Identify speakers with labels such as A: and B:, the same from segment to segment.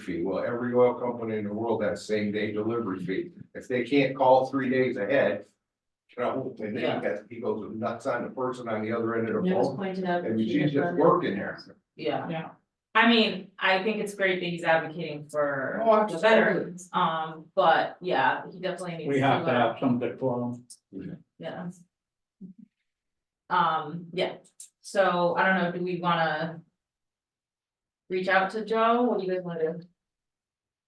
A: fee. Well, every oil company in the world has same day delivery fee. If they can't call three days ahead. You know, and then that he goes nuts on the person on the other end of the
B: It was
A: phone,
B: pointed out.
A: and
B: that she
A: she's
B: had
A: just
B: done
A: working
B: that.
A: there.
B: Yeah.
C: Yeah, I mean, I think it's great that he's advocating for
A: Oh,
C: the veterans, um, but yeah, he definitely needs to.
D: We have to
C: uh,
D: have something for them.
C: Yeah. Um, yeah, so I don't know, do we wanna? Reach out to Joe, what do you guys wanna do? Do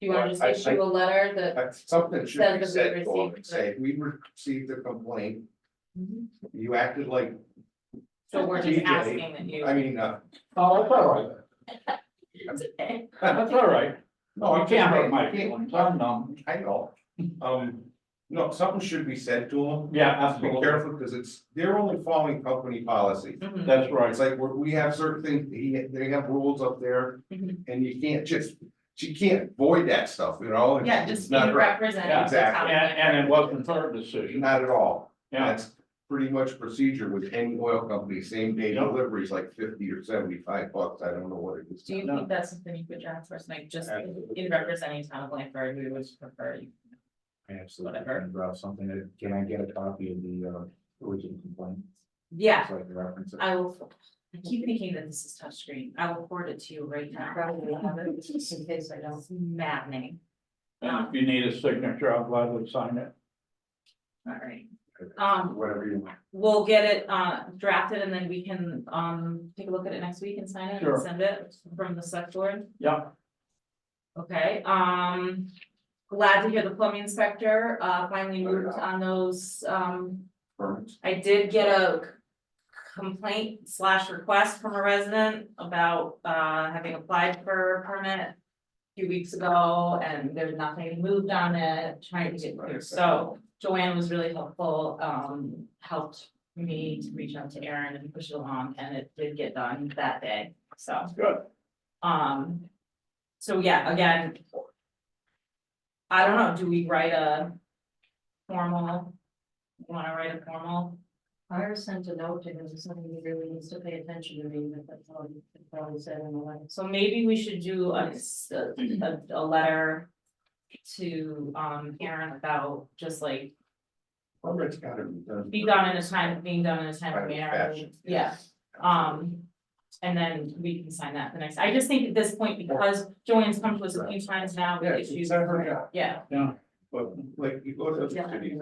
C: you
A: Well,
C: wanna just
A: I-
C: issue a letter that?
A: But Something should
C: Said
A: be
C: that we
A: said for him,
C: received
A: say, we received a complaint,
C: Mhm.
A: you acted like,
C: So we're just
A: TJ,
C: asking that you.
A: I mean, uh.
D: Oh, that's all right,
C: It's okay.
D: that's all right.
A: no,
D: You
A: I'm
D: Oh, can't hurt
A: just-
D: my feelings, I'm numb.
A: I know, um, no, something should be said to them.
D: Yeah,
A: Be
D: absolutely,
A: careful, because it's, they're only following company policy.
C: Mhm.
D: that's
A: It's
D: right,
A: like, we we have certain things, he, they have rules up there,
C: Mhm.
A: and you can't just, you can't void that stuff, you know? and
C: Yeah,
A: it's
C: just be
A: Not, right.
C: representing. the town.
D: and, and it wasn't her decision,
A: not at all.
D: yeah,
A: That's pretty much procedure with any oil company, same day
D: Yeah.
A: delivery is like fifty or seventy-five bucks, I don't know what it is.
C: Do you
D: No.
C: think that's something you could draft for us, like just
A: Absolutely.
C: in representing town of Blanford, we would prefer you?
E: Absolutely,
C: Whatever.
E: and draw something, that- can I get a copy of the uh original complaint?
C: Yeah,
E: So I can reference it.
C: I will, I keep thinking that this is touchscreen, I will forward it to you right
B: I
C: now.
B: Probably have it, just in case I don't.
C: It's maddening,
D: and if you need a signature, I'll gladly sign it.
C: alright, um,
E: Whatever you want.
C: we'll get it uh drafted and then we can um take a look at it next week and sign it
D: Sure.
C: and send it from the select board.
D: Yeah,
C: Okay, um, glad to hear the plumbing inspector uh finally moved on those um
A: Permits.
C: I did get a c- complaint slash request from a resident about uh having applied for a permit. a Few weeks ago and there's nothing moved on it, trying to get through, so Joanne was really helpful, um, helped. Me to reach out to Aaron and push it along and it did get done that day, so.
D: Good.
C: Um, so yeah, again. I don't know, do we write a formal? Wanna write a formal
B: Fire sent a note to him, something he really needs to pay attention to, me, but that's all he that's all he said in the letter.
C: So maybe we should do a, s- a- a, a letter to, um, Aaron about just like,
A: Permits gotta be done.
C: be done in a time, being done in a time of
A: Timely
C: manner,
A: fashion.
C: yeah, um. And then we can sign that the next, I just think at this point, because Joanne's come to us a few times now
A: Yeah,
C: with
A: she's
C: issues.
A: done her job.
C: Yeah,
A: But like, you go to the
C: Yeah.
A: city,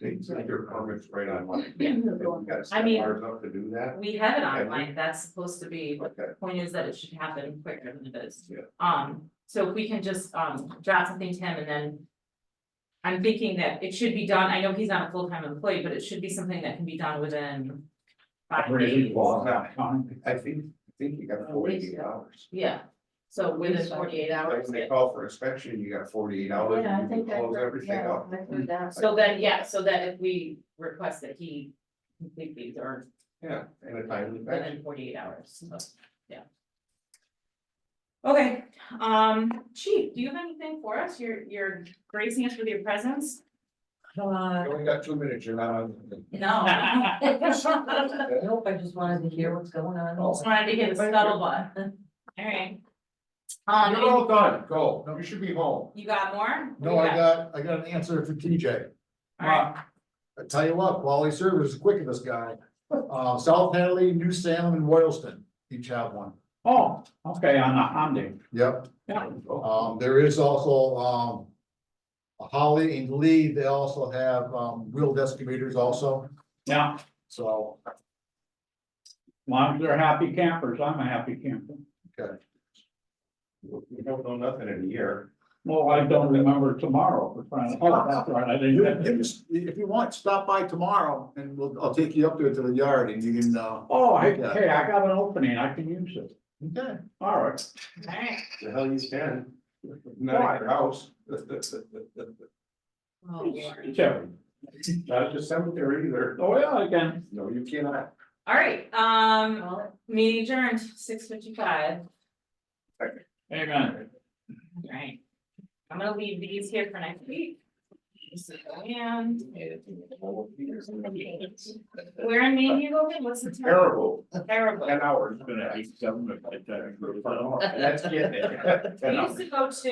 A: they send your permits right online.
C: Yeah.
A: You gotta set
C: mean-
A: ours up to do that,
C: we have it
A: Okay.
C: online, that's supposed to be,
A: like that.
C: the point is that it should happen quicker than it is.
A: Yeah.
C: Um, so if we can just, um, draft something to him and then. I'm thinking that it should be done, I know he's not a full-time employee, but it should be something that can be done within. Five days,
D: Reasonable time.
A: I think, I think you got forty-eight hours.
C: yeah, so within forty-eight
A: Like
C: hours,
A: when
C: yeah.
A: they call for inspection, you got forty-eight hours,
B: Yeah, I
A: you can
B: think I
A: close
B: heard,
A: everything
B: yeah,
A: up.
B: I heard that.
C: so then, yeah, so that if we request that he complete these or
A: Yeah, in a timely fashion.
C: within forty-eight hours, so, yeah. Okay, um, chief, do you have anything for us, you're, you're gracing us with your presence?
B: Uh,
A: You only got two minutes, you're not on.
C: No,
B: Nope, I just wanted to hear what's going on.
C: just wanted to get a scuttlebutt. Alright. Um,
A: You're
C: you-
A: all done, go, you should be home.
C: you got more?
F: No, I got, I got an answer for TJ.
C: Alright,
D: Uh,
F: I tell you what, Wally Server is quick of this guy. Uh, South Hadley, New Salem and Royalston each have one.
D: Oh, okay, on the Hyundai,
F: Yep.
D: yeah,
F: Um, there is also, um. Holly and Lee, they also have, um, wheeled excavators also,
D: yeah,
F: so,
D: long as they're happy campers, I'm a happy camper.
A: You don't know nothing in a year.
D: Well, I don't remember tomorrow, for crying out loud, that's right, I
F: you,
D: didn't.
F: you just- if you want, stop by tomorrow and we'll, I'll take you up there to the yard and you can, uh.
D: Oh, hey, hey, I got an opening, I can use it,
F: Okay.
D: all right.
C: alright.
A: The hell you stand? Not at your house.
C: Oh, Lord.
D: Terry,
A: Not at the cemetery either.
D: oh, yeah, again,
A: No, you cannot.
C: Alright, um,
B: Well,
C: meeting adjourned, six fifty-five,
D: amen.
C: alright. I'm gonna leave these here for next week. And where in Maine you going? What's the term?
A: Terrible,
C: Terrible.
A: ten hours.
D: Gonna hate government like that.
A: That's getting it.
C: We
A: Ten hours.
C: used to go to